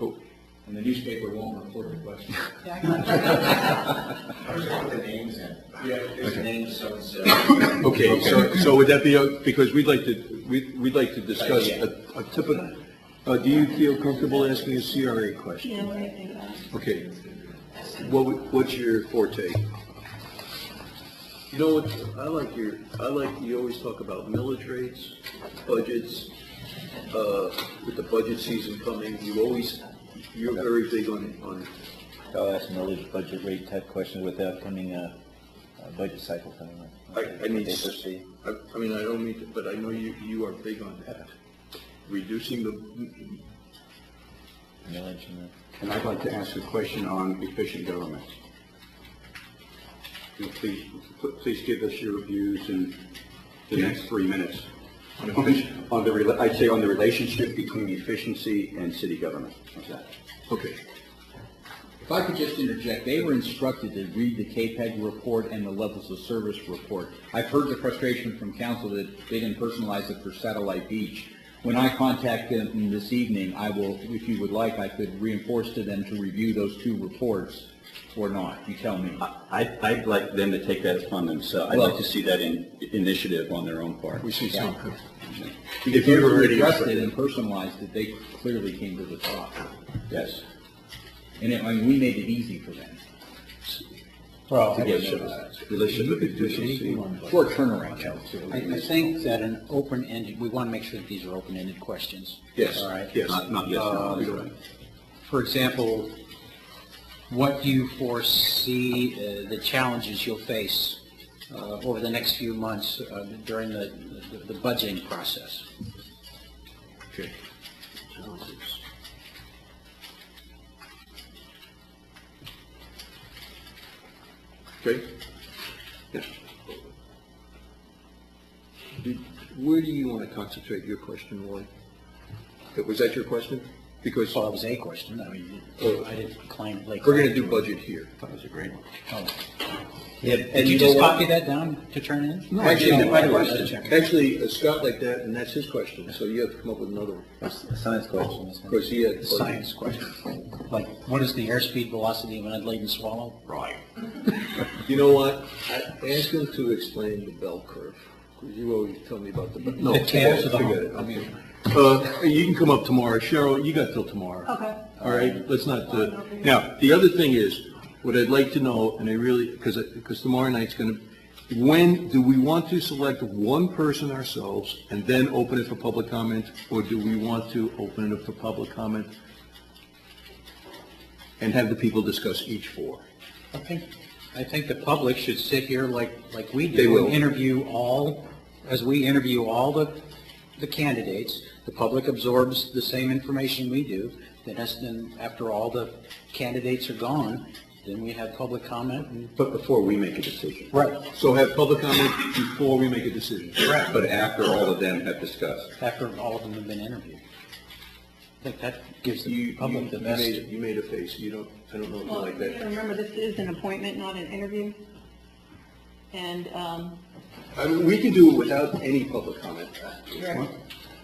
Oh, And the newspaper won't report the question. I was put the names in. Yeah. There's names, so and so. Okay, so, so would that be, o- because we'd like to, we- we'd like to discuss Yeah. a a typical, uh, do you feel comfortable asking a CRA question? Yeah, what do you think about it? Okay. What, would- what's your forte? You know, what? I like your, I like, you always talk about millage rates, budgets, uh, with the budget season coming, you always, you're very big on, on, I'll ask another budget rate type question with the upcoming, uh, uh, budget cycle coming up. I, I need, They foresee. I, I mean, I don't mean to, but I know you, you are big on that. Reducing the, Millage and And I'd like to ask a question on efficient government. You know, Please, please give us your views in the next three minutes on on the, rela- I'd say on the relationship between efficiency and city government. How's that? okay. If I could just interject, they were instructed to read the KPEG report and the levels of service report. I've heard the frustration from council that they didn't personalize it for Satellite Beach. When I contact them this evening, I will, if you would like, I could reinforce to them to review those two reports or not. You tell me. I, I'd like them to take that upon themselves. I'd like to see that in, initiative on their own part. We see some, Because you've those were already- adjusted and personalized that they clearly came to the top. Yes. And it, I mean, we made it easy for them. Well, to I- get those. relationship with efficiency. Short turnaround, too. I I think that an open-ended, we want to make sure that these are open-ended questions. Yes, All right? yes. Not, not yes, no, we don't. For example, what do you foresee uh, the challenges you'll face uh, over the next few months uh, during the the- the budgeting process? Okay. Okay? Yeah. Do- Where do you want to concentrate your question, Roy? Uh, Was that your question? Because Well, that was a question, I mean, Oh. I didn't claim like. Oh. we're going to do budget here. That was a great one. Did you just copy that down to turn in? No, Actually, my question, actually, uh, Scott like that, and that's his question, so you have to come up with another one. the science question. isn't Of it? course, he had. Science question, like, what is the airspeed velocity of an unladen swallow? Right. You know what? I- Ask him to explain the bell curve, because you always tell me about the. bell- No, The forget tails it, of the forget it. hump. Uh, you can come up tomorrow. Cheryl, you got till tomorrow. Okay. All right, let's not, uh, now, the other thing is, what I'd like to know, and I really, because, because tomorrow night's going to, when, do we want to select one person ourselves and then open it for public comment? Or do we want to open it up for public comment and have the people discuss each four? I think, I think the public should sit here like, like we do. They will. and Interview all, as we interview all the, the candidates, the public absorbs the same information we do. Then, as- then after all the candidates are gone, then we have public comment and. But before we make a decision. Right. So have public comment before we make a decision. Correct. But after all of them have discussed. After all of them have been interviewed. I think that gives You, the you public you the best. made, you made a face, you don't, I don't know if you Well, like you gotta that. remember, this is an appointment, not an interview. And, um, I mean, we can do it without any public comment.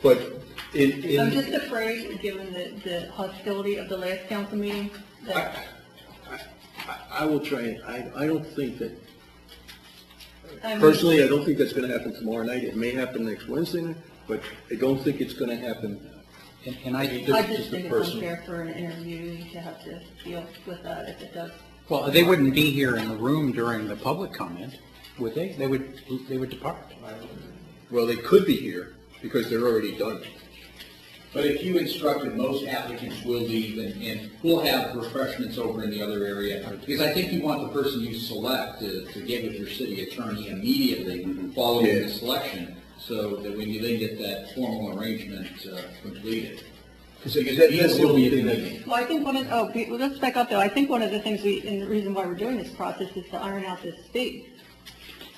But in, I'm in, just afraid, given the, the hostility of the last council meeting, that, I will try, and I, I don't think that, I mean, personally, I don't think that's gonna happen tomorrow night. It may happen next Wednesday night, but I don't think it's gonna happen. And- And I, I just just the think it's person. unfair for an interviewee to have to deal with that if it does. well, they wouldn't be here in the room during the public comment, would they? They would, they would depart. Well, they could be here because they're already done. But if you instructed, most applicants will leave and, and we'll have refreshments over in the other area. Because I think you want the person you select to, to get with your city attorney immediately following the Yeah. selection. So that when you then get that formal arrangement uh, completed. Because Yes, that's the will only be thing a that. meeting. Well, I think one of, oh, we- well, let's back up though. I think one of the things we, and the reason why we're doing this process is to iron out this fee.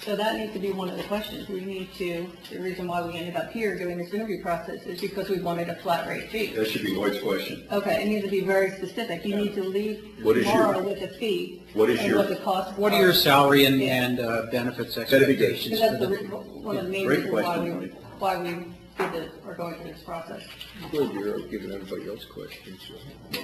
So that needs to be one of the questions. We need to, the reason why we ended up here doing this interview process is because we wanted a flat rate fee. That should be Lloyd's question. Okay, it needs to be very specific. You need to leave What is your- tomorrow with a fee. what is your- And what the cost. What are your salary and, and uh, benefits expectations? Because that's for the, the- re- one of the main Great reasons why we, question, Tony. why we did this, are going through this process. Well, you're giving everybody else questions. so.